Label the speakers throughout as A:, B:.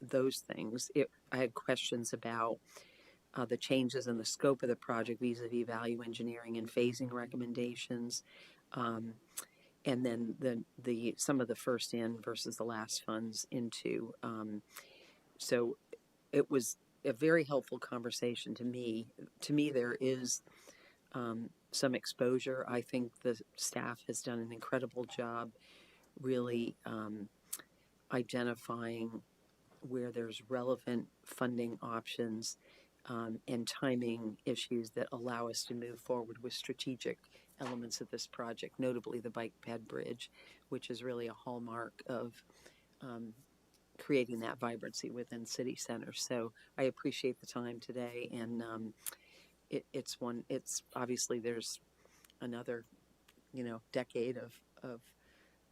A: those things. It, I had questions about uh, the changes in the scope of the project vis-à-vis value engineering and phasing recommendations. Um, and then the, the, some of the first in versus the last funds into. Um, so it was a very helpful conversation to me. To me, there is um, some exposure. I think the staff has done an incredible job really um, identifying where there's relevant funding options um, and timing issues that allow us to move forward with strategic elements of this project, notably the bike ped bridge, which is really a hallmark of um, creating that vibrancy within city centers. So I appreciate the time today, and um, it, it's one. It's obviously there's another, you know, decade of of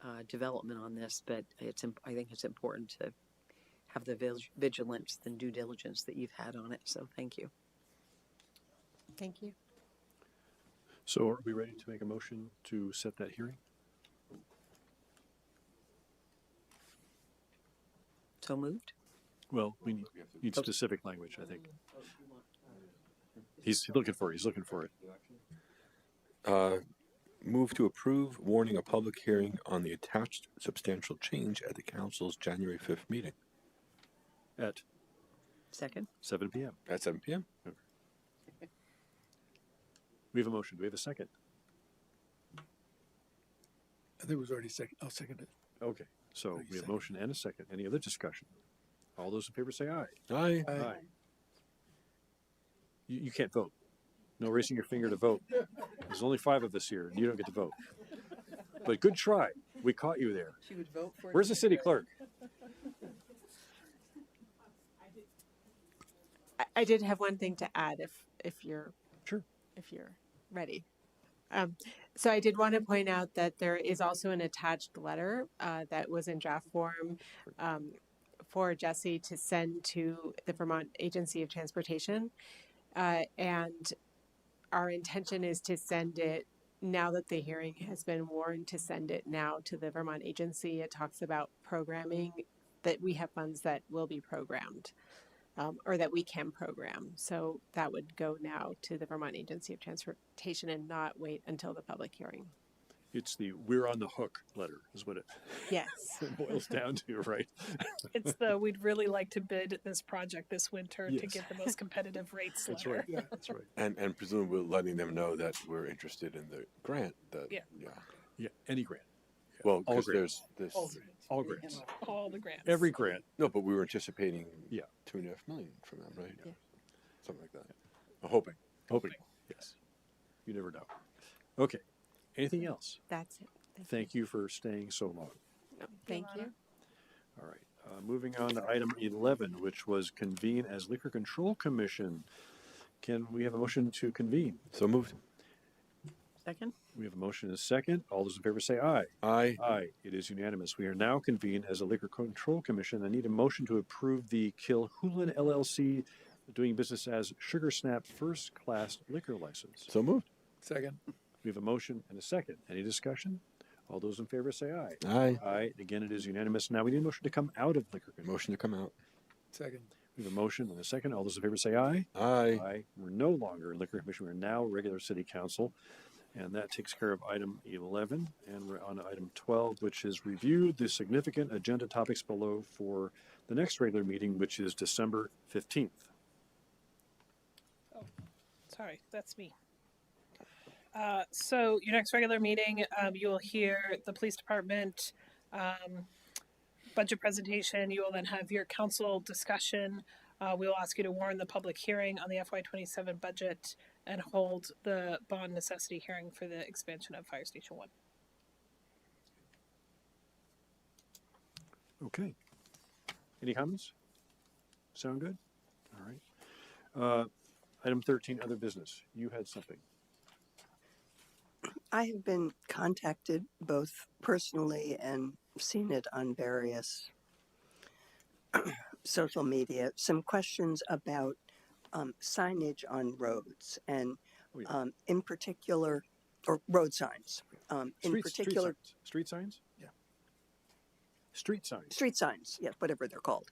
A: uh, development on this, but it's imp- I think it's important to have the vil- vigilance and due diligence that you've had on it. So thank you.
B: Thank you.
C: So are we ready to make a motion to set that hearing?
A: So moved.
C: Well, we need, need specific language, I think. He's looking for, it, he's looking for it.
D: Uh, Move to approve warning a public hearing on the attached substantial change at the council's January 5th meeting
C: At
A: Second.
C: seven PM.
D: at 7 p.m.
C: We have a motion. Do we have a second?
E: I think it was already second. I'll second it.
C: Okay, so
E: Thirty
C: we have
E: seconds.
C: motion and a second. Any other discussion? All those in favor say aye.
D: Aye.
E: Aye.
C: You, you can't vote. No raising your finger to vote. There's only five of us here and you don't get to vote. But good try. We caught you there.
F: She would vote for. it.
C: Where's the city clerk?
B: I, I did have one thing to add if, if you're.
C: Sure.
B: If you're ready. Um, so I did want to point out that there is also an attached letter, uh, that was in draft form, um, for Jesse to send to the Vermont Agency of Transportation. Uh, and our intention is to send it, now that the hearing has been warned, to send it now to the Vermont Agency. It talks about programming, that we have funds that will be programmed um, or that we can program. So that would go now to the Vermont Agency of Transportation and not wait until the public hearing.
C: It's the we're on the hook letter is what it
B: Yes.
C: boils down to, right?
G: It's the we'd really like to bid this project this winter to
C: Yes.
G: get the most competitive rates
C: That's
G: letter.
C: right. That's right.
D: And, and presumably letting them know that we're interested in the grant that,
G: Yeah.
D: yeah.
C: Yeah, any grant,
D: Well,
C: All
D: because
C: grants.
D: there's this,
C: all grants,
G: All the grants.
C: every grant.
D: no, but we were anticipating
C: Yeah.
D: two and a half million from them, right?
B: Yeah.
D: Something like that. I'm hoping.
C: Hoping, yes. You never know. Okay. Anything else?
B: That's it. That's it.
C: Thank you for staying so long.
B: No, Thank you.
C: All right. Uh, moving on to item 11, which was convene as Liquor Control Commission. Can we have a motion to convene?
D: So moved.
A: Second.
C: We have a motion and a second. All those in favor say aye.
D: Aye.
C: Aye. It is unanimous. We are now convened as a Liquor Control Commission. I need a motion to approve the Kilhulan LLC doing business as Sugar Snap First Class Liquor License.
D: So moved.
E: Second.
C: We have a motion and a second. Any discussion? All those in favor say aye.
D: Aye.
C: Aye. Again, it is unanimous. Now we need a motion to come out of liquor control.
D: Motion to come out.
E: Second.
C: We have a motion and a second. All those in favor say aye.
D: Aye.
C: Aye. We're no longer in liquor commission. We're now regular city council. And that takes care of item 11. And we're on to item 12, which is review the significant agenda topics below for the next regular meeting, which is December 15th.
G: Sorry, that's me. Uh, so your next regular meeting, um, you will hear the police department um, budget presentation. You will then have your council discussion. Uh, we will ask you to warn the public hearing on the FY27 budget and hold the bond necessity hearing for the expansion of Fire Station 1.
C: Okay. Any comments? Sound good? All right. Uh, item 13, other business. You had something.
F: I have been contacted both personally and seen it on various social media. Some questions about um, signage on roads and,
C: Oh, yeah.
F: um, in particular, or road signs. Um, in
C: Street-
F: particular,
C: street signs? Street signs? Yeah. Street signs.
F: street signs, yes, whatever they're called.